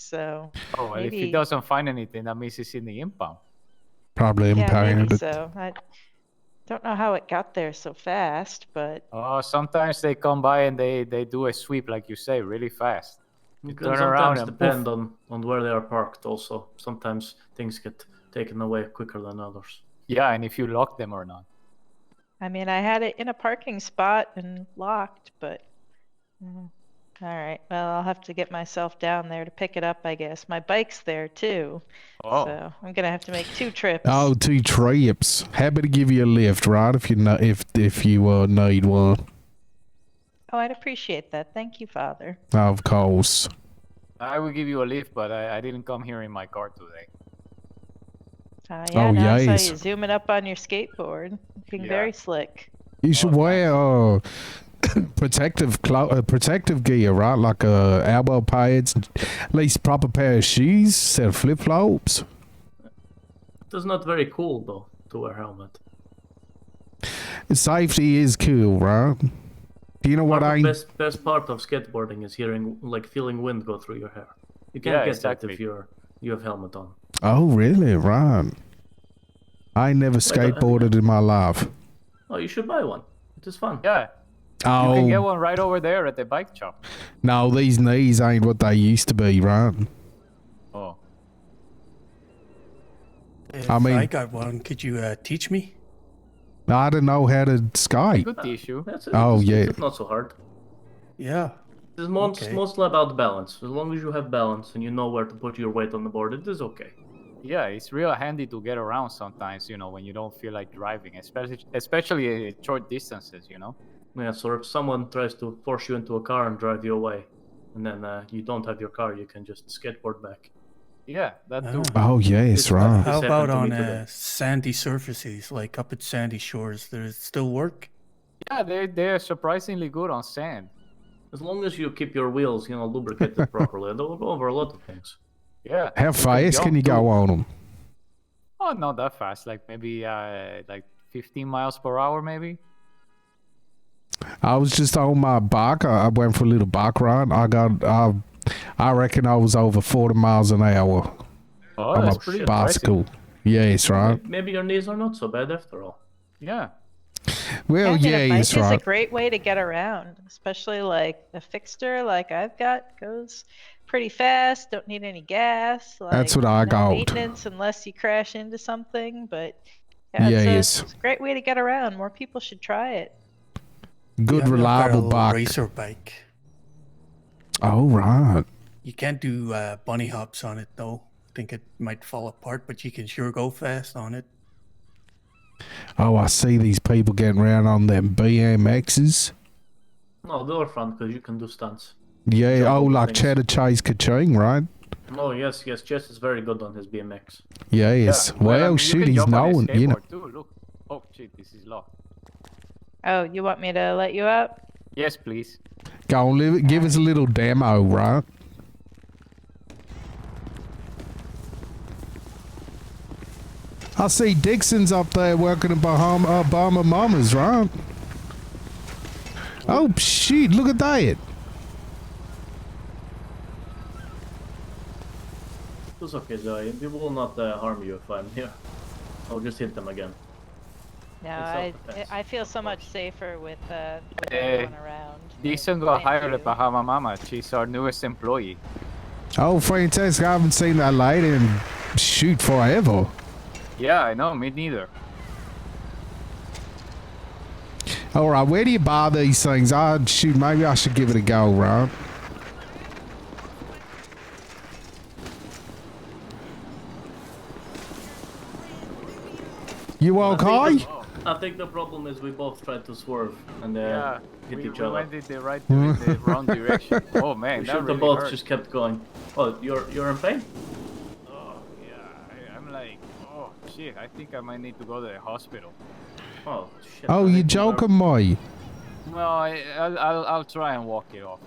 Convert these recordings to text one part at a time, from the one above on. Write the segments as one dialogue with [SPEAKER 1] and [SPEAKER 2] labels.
[SPEAKER 1] so
[SPEAKER 2] Oh, if he
[SPEAKER 1] Maybe.
[SPEAKER 2] doesn't find anything, that means he's in the impound.
[SPEAKER 3] Probably
[SPEAKER 1] yeah,
[SPEAKER 3] impounded.
[SPEAKER 1] maybe so. I don't know how it got there so fast, but
[SPEAKER 2] Oh, sometimes they come by and they they do a sweep, like you say, really fast.
[SPEAKER 4] It
[SPEAKER 2] turn
[SPEAKER 4] can
[SPEAKER 2] around
[SPEAKER 4] sometimes
[SPEAKER 2] and
[SPEAKER 4] depend on, on where they are parked also. Sometimes things get taken away quicker than others.
[SPEAKER 2] Yeah, and if you lock them or not.
[SPEAKER 1] I mean, I had it in a parking spot and locked, but. Mm. All right. Well, I'll have to get myself down there to pick it up, I guess. My bike's there too.
[SPEAKER 2] Oh,
[SPEAKER 1] So I'm going to have to make two trips.
[SPEAKER 3] Oh, two trips. Happy to give you a lift, right? If you know, if if you uh, need one,
[SPEAKER 1] Oh, I'd appreciate that. Thank you, Father.
[SPEAKER 3] of course.
[SPEAKER 2] I will give you a lift, but I, I didn't come here in my car today.
[SPEAKER 1] Uh, yeah,
[SPEAKER 3] Oh,
[SPEAKER 1] now I
[SPEAKER 3] yes.
[SPEAKER 1] saw you zooming up on your skateboard, looking
[SPEAKER 2] Yeah.
[SPEAKER 1] very slick.
[SPEAKER 3] You should
[SPEAKER 2] Oh,
[SPEAKER 3] wear uh, protective clo- uh, protective gear, right? Like uh, elbow pads, at least proper pair of shoes, set of flip flops.
[SPEAKER 4] It is not very cool though to wear helmet.
[SPEAKER 3] Safety is cool, right? You know what
[SPEAKER 4] Part of
[SPEAKER 3] I?
[SPEAKER 4] best best part of skateboarding is hearing like feeling wind go through your hair. You can't
[SPEAKER 2] Yeah,
[SPEAKER 4] get
[SPEAKER 2] exactly.
[SPEAKER 4] that if you're you have helmet on.
[SPEAKER 3] Oh, really? Right. I never
[SPEAKER 4] I-
[SPEAKER 3] skateboarded in my life.
[SPEAKER 4] Oh, you should buy one. It is fun.
[SPEAKER 2] Yeah, you can get
[SPEAKER 3] Oh
[SPEAKER 2] one right over there at the bike shop.
[SPEAKER 3] no, these knees ain't what they used to be, right?
[SPEAKER 2] Oh,
[SPEAKER 5] If
[SPEAKER 3] I
[SPEAKER 5] I
[SPEAKER 3] mean-
[SPEAKER 5] got one. Could you uh, teach me?
[SPEAKER 3] I don't know how to skate.
[SPEAKER 2] good issue.
[SPEAKER 4] That's it.
[SPEAKER 3] Oh,
[SPEAKER 4] It's-
[SPEAKER 3] yeah.
[SPEAKER 4] It's not so hard.
[SPEAKER 5] Yeah.
[SPEAKER 4] It's most,
[SPEAKER 5] Okay.
[SPEAKER 4] mostly about balance. As long as you have balance and you know where to put your weight on the board, it is okay.
[SPEAKER 2] Yeah, it's real handy to get around sometimes, you know, when you don't feel like driving, especially especially uh, short distances, you know.
[SPEAKER 4] Yeah, so if someone tries to force you into a car and drive you away, and then uh, you don't have your car, you can just skateboard back.
[SPEAKER 2] Yeah, that too.
[SPEAKER 3] Oh yes,
[SPEAKER 4] It's not-
[SPEAKER 3] right.
[SPEAKER 5] How
[SPEAKER 4] This
[SPEAKER 5] about
[SPEAKER 4] happened
[SPEAKER 5] on
[SPEAKER 4] to me today.
[SPEAKER 5] uh, sandy surfaces, like up at Sandy Shores? Does it still work?
[SPEAKER 2] Yeah, they they're surprisingly good on sand.
[SPEAKER 4] As long as you keep your wheels, you know, lubricated properly, they'll go over a lot of things.
[SPEAKER 2] Yeah.
[SPEAKER 3] How fast can you go on them?
[SPEAKER 2] Oh, not that fast. Like maybe uh, like 15 miles per hour, maybe.
[SPEAKER 3] I was just on my bike. I, I went for a little bike ride. I got, I, I reckon I was over 40 miles an hour
[SPEAKER 2] Oh,
[SPEAKER 3] on
[SPEAKER 2] that's
[SPEAKER 3] my
[SPEAKER 2] pretty
[SPEAKER 3] bicycle. Yes, right.
[SPEAKER 4] Maybe your knees are not so bad after all.
[SPEAKER 2] impressive. Yeah.
[SPEAKER 3] Well,
[SPEAKER 1] Having
[SPEAKER 3] Oh, yeah,
[SPEAKER 1] a bike
[SPEAKER 3] yes,
[SPEAKER 1] is a
[SPEAKER 3] right.
[SPEAKER 1] great way to get around, especially like a fixture like I've got goes pretty fast. Don't need any gas. Like,
[SPEAKER 3] That's what I
[SPEAKER 1] no
[SPEAKER 3] got.
[SPEAKER 1] Maintenance, unless you crash into something, but yeah, it's, a,
[SPEAKER 3] Yes.
[SPEAKER 1] it's a great way to get around. More people should try it.
[SPEAKER 3] Good,
[SPEAKER 5] Yeah, I've got a
[SPEAKER 3] reliable
[SPEAKER 5] little
[SPEAKER 3] bike.
[SPEAKER 5] Racer bike.
[SPEAKER 3] Oh, right.
[SPEAKER 5] You can't do uh, bunny hops on it though. I think it might fall apart, but you can sure go fast on it.
[SPEAKER 3] Oh, I see these people getting around on them BMXs.
[SPEAKER 4] No, they are fun because you can do stunts.
[SPEAKER 3] Yeah, oh,
[SPEAKER 4] over
[SPEAKER 3] like
[SPEAKER 4] things.
[SPEAKER 3] Cheddar Chase Kaching, right?
[SPEAKER 4] Oh yes, yes, Jess is very good on his BMX.
[SPEAKER 3] Yes.
[SPEAKER 2] Yeah.
[SPEAKER 3] Well,
[SPEAKER 2] I mean, you
[SPEAKER 3] shit,
[SPEAKER 2] can
[SPEAKER 3] he's
[SPEAKER 2] jump on his
[SPEAKER 3] known, you know.
[SPEAKER 2] skateboard Too. Look. Oh, shit, this is locked.
[SPEAKER 1] Oh, you want me to let you up?
[SPEAKER 2] Yes, please.
[SPEAKER 3] Go on, live, give us a little demo, right? I see Dixon's up there working at Bahama, uh, Bahama Mamas, right? Oh, shit, look at that.
[SPEAKER 4] It's okay, Zoe. We will not uh, harm you if I'm here. I'll just hit them again.
[SPEAKER 1] No, I,
[SPEAKER 4] self-defense,
[SPEAKER 1] I feel so much safer with, uh, with
[SPEAKER 2] Eh,
[SPEAKER 1] everyone around.
[SPEAKER 2] Decent got
[SPEAKER 1] Thank
[SPEAKER 2] hired at
[SPEAKER 1] you.
[SPEAKER 2] Bahama Mama. She's our newest employee.
[SPEAKER 3] Oh, fantastic. I haven't seen that light in shoot forever.
[SPEAKER 2] Yeah, I know. Me neither. Oh,
[SPEAKER 3] All right, where do you buy these things? I shoot, maybe I should give it a go, right? You
[SPEAKER 4] I
[SPEAKER 3] okay?
[SPEAKER 4] think, the, I think the problem is we both tried to swerve and uh,
[SPEAKER 2] Yeah.
[SPEAKER 4] hit
[SPEAKER 2] we,
[SPEAKER 4] each
[SPEAKER 2] we
[SPEAKER 4] other.
[SPEAKER 2] went in the right, in the wrong direction. Oh man,
[SPEAKER 4] We
[SPEAKER 2] that
[SPEAKER 4] should
[SPEAKER 2] really
[SPEAKER 4] have both
[SPEAKER 2] hurt.
[SPEAKER 4] just kept going. Oh, you're you're in pain?
[SPEAKER 2] Oh yeah, I, I'm like, oh shit, I think I might need to go to the hospital.
[SPEAKER 4] Oh shit.
[SPEAKER 3] Oh,
[SPEAKER 4] I
[SPEAKER 3] you
[SPEAKER 4] think we're-
[SPEAKER 3] joking, me?
[SPEAKER 2] No, I, I'll, I'll, I'll try and walk it off.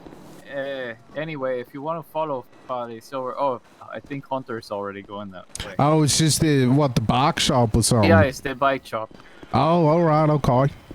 [SPEAKER 2] Uh, anyway, if you want to follow, uh, it's over. Oh, I think Hunter's already going that way.
[SPEAKER 3] Oh, it's just the what the bike shop or something.
[SPEAKER 2] yeah, it's the bike shop.
[SPEAKER 3] Oh, all right, okay.